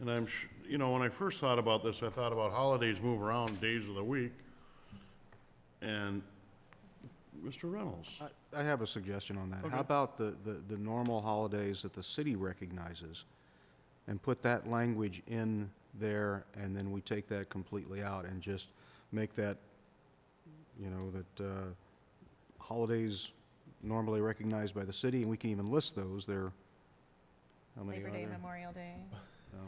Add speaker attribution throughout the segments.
Speaker 1: And I'm, sh- you know, when I first thought about this, I thought about holidays move around days of the week. And Mr. Reynolds,
Speaker 2: I- I have a suggestion on that.
Speaker 1: Okay.
Speaker 2: How about the, the, the normal holidays that the city recognizes? And put that language in there, and then we take that completely out and just make that, you know, that, uh, holidays normally recognized by the city, and we can even list those, there, how many
Speaker 3: Labor
Speaker 2: are
Speaker 3: Day,
Speaker 2: there? Oh.
Speaker 3: Memorial Day.
Speaker 2: No.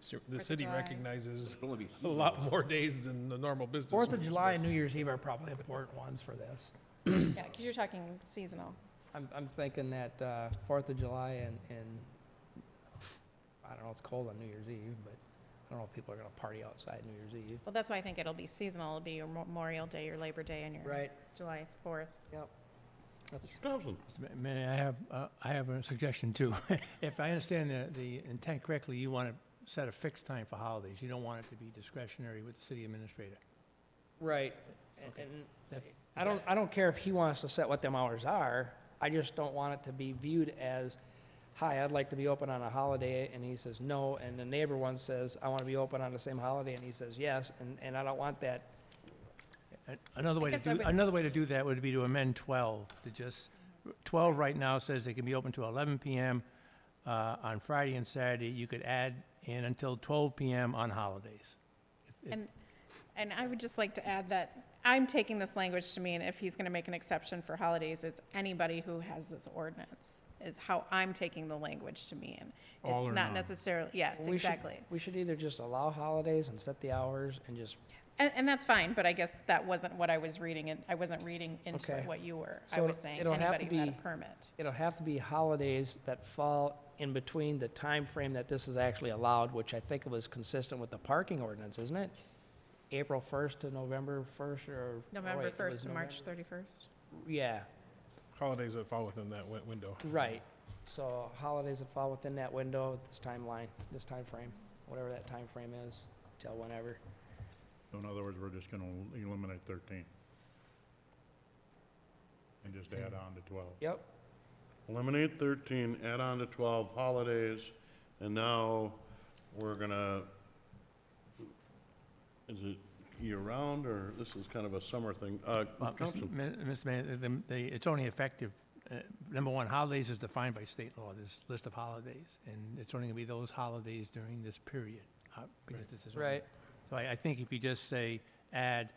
Speaker 4: So
Speaker 3: Fourth
Speaker 4: The
Speaker 3: of
Speaker 4: city
Speaker 3: July.
Speaker 4: recognizes a lot more days than the normal business.
Speaker 5: Fourth of
Speaker 4: week.
Speaker 5: July and New Year's Eve are probably important ones for this.
Speaker 3: Yeah, because you're talking seasonal.
Speaker 6: I'm, I'm thinking that, uh, Fourth of July and, and, I don't know, it's cold on New Year's Eve, but I don't know if people are gonna party outside New Year's Eve.
Speaker 3: Well, that's why I think it'll be seasonal. It'll be your Memorial Day, your Labor Day, and your
Speaker 6: Right,
Speaker 3: July 4th.
Speaker 6: yep. That's,
Speaker 1: Mr. Thompson,
Speaker 7: Ma- May I have, uh, I have a suggestion too. If I understand the, the intent correctly, you want to set a fixed time for holidays. You don't want it to be discretionary with the city administrator.
Speaker 6: right, and- and
Speaker 7: Yep.
Speaker 6: I don't, I don't care if he wants to set what them hours are, I just don't want it to be viewed as, hi, I'd like to be open on a holiday, and he says no, and the neighbor one says, I wanna be open on the same holiday, and he says yes, and, and I don't want that
Speaker 7: A- Another way to
Speaker 3: guess I
Speaker 7: do,
Speaker 3: would-
Speaker 7: another way to do that would be to amend 12, to just, 12 right now says they can be open to 11 PM uh, on Friday and Saturday. You could add in until 12 PM on holidays. If-
Speaker 3: And, and I would just like to add that I'm taking this language to mean if he's going to make an exception for holidays, it's anybody who has this ordinance, is how I'm taking the language to mean.
Speaker 1: All or
Speaker 3: It's
Speaker 1: none.
Speaker 3: not necessarily, yes,
Speaker 6: We should-
Speaker 3: exactly.
Speaker 6: We should either just allow holidays and set the hours and just,
Speaker 3: And, and that's fine, but I guess that wasn't what I was reading, and I wasn't reading into
Speaker 6: Okay.
Speaker 3: what you were. I
Speaker 6: So
Speaker 3: was saying
Speaker 6: it'll have to
Speaker 3: anybody who had a
Speaker 6: be-
Speaker 3: permit.
Speaker 6: it'll have to be holidays that fall in between the time frame that this is actually allowed, which I think it was consistent with the parking ordinance, isn't it? April 1st to November 1st or? or wait,
Speaker 3: November
Speaker 6: it
Speaker 3: 1st
Speaker 6: was
Speaker 3: to March 31st.
Speaker 6: November- Yeah,
Speaker 4: Holidays that fall within that win- window.
Speaker 6: right. So holidays that fall within that window, this timeline, this time frame, whatever that time frame is, till whenever.
Speaker 8: So in other words, we're just gonna eliminate thirteen. And just add on to twelve.
Speaker 6: Yep,
Speaker 1: eliminate thirteen, add on to twelve holidays, and now we're gonna, is it year-round, or this is kind of a summer thing? Uh,
Speaker 7: Well, Mr.
Speaker 1: Thompson,
Speaker 7: Ma- Mr. Mayor, the- the- it's only effective, uh, number one, holidays is defined by state law, this list of holidays, and it's only going to be those holidays during this period, uh, because this is. only-
Speaker 6: right.
Speaker 7: So I, I think if you just say, add,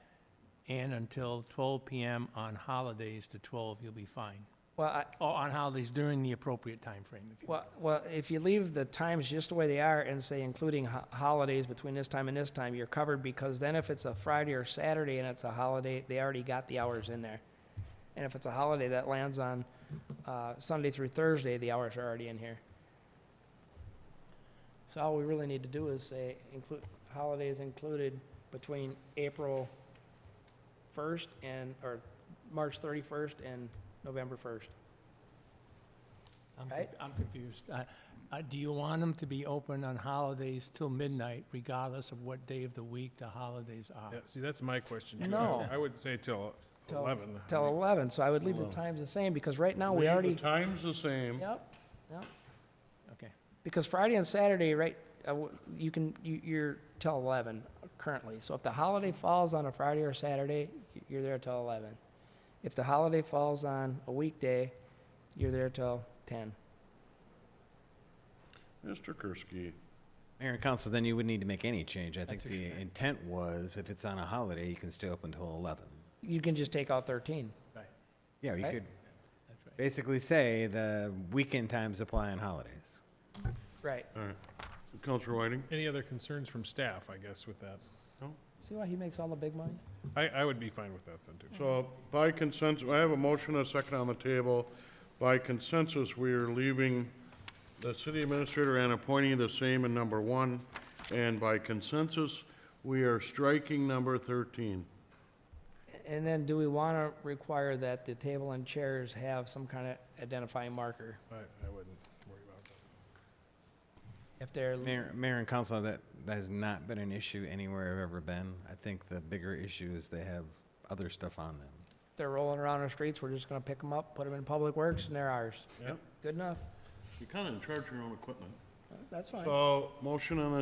Speaker 7: and until 12 PM on holidays to 12, you'll be fine.
Speaker 6: Well, I,
Speaker 7: Or on holidays during the appropriate time frame. if you
Speaker 6: Well, well, if you leave the times just the way they are and say including ho- holidays between this time and this time, you're covered because then if it's a Friday or Saturday and it's a holiday, they already got the hours in there. And if it's a holiday that lands on, uh, Sunday through Thursday, the hours are already in here. So all we really need to do is say include, holidays included between April first and, or March thirty-first and November first.
Speaker 7: I'm
Speaker 6: Right?
Speaker 7: conf- I'm confused. Uh, uh, Do you want them to be open on holidays till midnight regardless of what day of the week the holidays are?
Speaker 4: Yeah, see, that's my question. too. I
Speaker 6: No.
Speaker 4: would- I would say till
Speaker 6: Till-
Speaker 4: eleven. I
Speaker 6: Till
Speaker 4: mean,
Speaker 6: eleven, so I would leave the
Speaker 1: Eleven.
Speaker 6: times the same, because right now
Speaker 1: leave
Speaker 6: we
Speaker 1: the
Speaker 6: already,
Speaker 1: Time's the same.
Speaker 6: yep,
Speaker 7: Okay.
Speaker 6: because Friday and Saturday, right, uh, w- you can, you, you're till eleven currently. So if the holiday falls on a Friday or Saturday, y- you're there till eleven. If the holiday falls on a weekday, you're there till ten.
Speaker 1: Mr. Kursky,
Speaker 9: Mayor and council, then you wouldn't need to make any change. I think
Speaker 7: That's
Speaker 9: the intent was, if it's on a holiday, you can stay open till eleven.
Speaker 6: You can just take out thirteen.
Speaker 9: Yeah, you
Speaker 6: Right.
Speaker 9: could
Speaker 7: That's right.
Speaker 9: basically say the weekend times apply on holidays.
Speaker 6: Right.
Speaker 1: all right. Counselor Whiting?
Speaker 4: Any other concerns from staff, I guess, with that?
Speaker 6: See why he makes all the big money?
Speaker 4: I, I would be fine with that then, too.
Speaker 1: So by consensus, I have a motion and a second on the table. By consensus, we are leaving the city administrator and appointee the same in number one. And by consensus, we are striking number thirteen.
Speaker 6: And then do we wanna require that the table and chairs have some kind of identifying marker
Speaker 4: I, I wouldn't worry about that.
Speaker 6: if they're?
Speaker 9: Mayor, mayor and council, that, that has not been an issue anywhere I've ever been. I think the bigger issue is they have other stuff on them.
Speaker 6: they're rolling around our streets, we're just gonna pick them up, put them in Public Works, and they're ours.
Speaker 1: Yep.
Speaker 6: Good enough,
Speaker 1: You're kind of in charge of your own equipment.
Speaker 6: that's fine.
Speaker 1: So, motion on the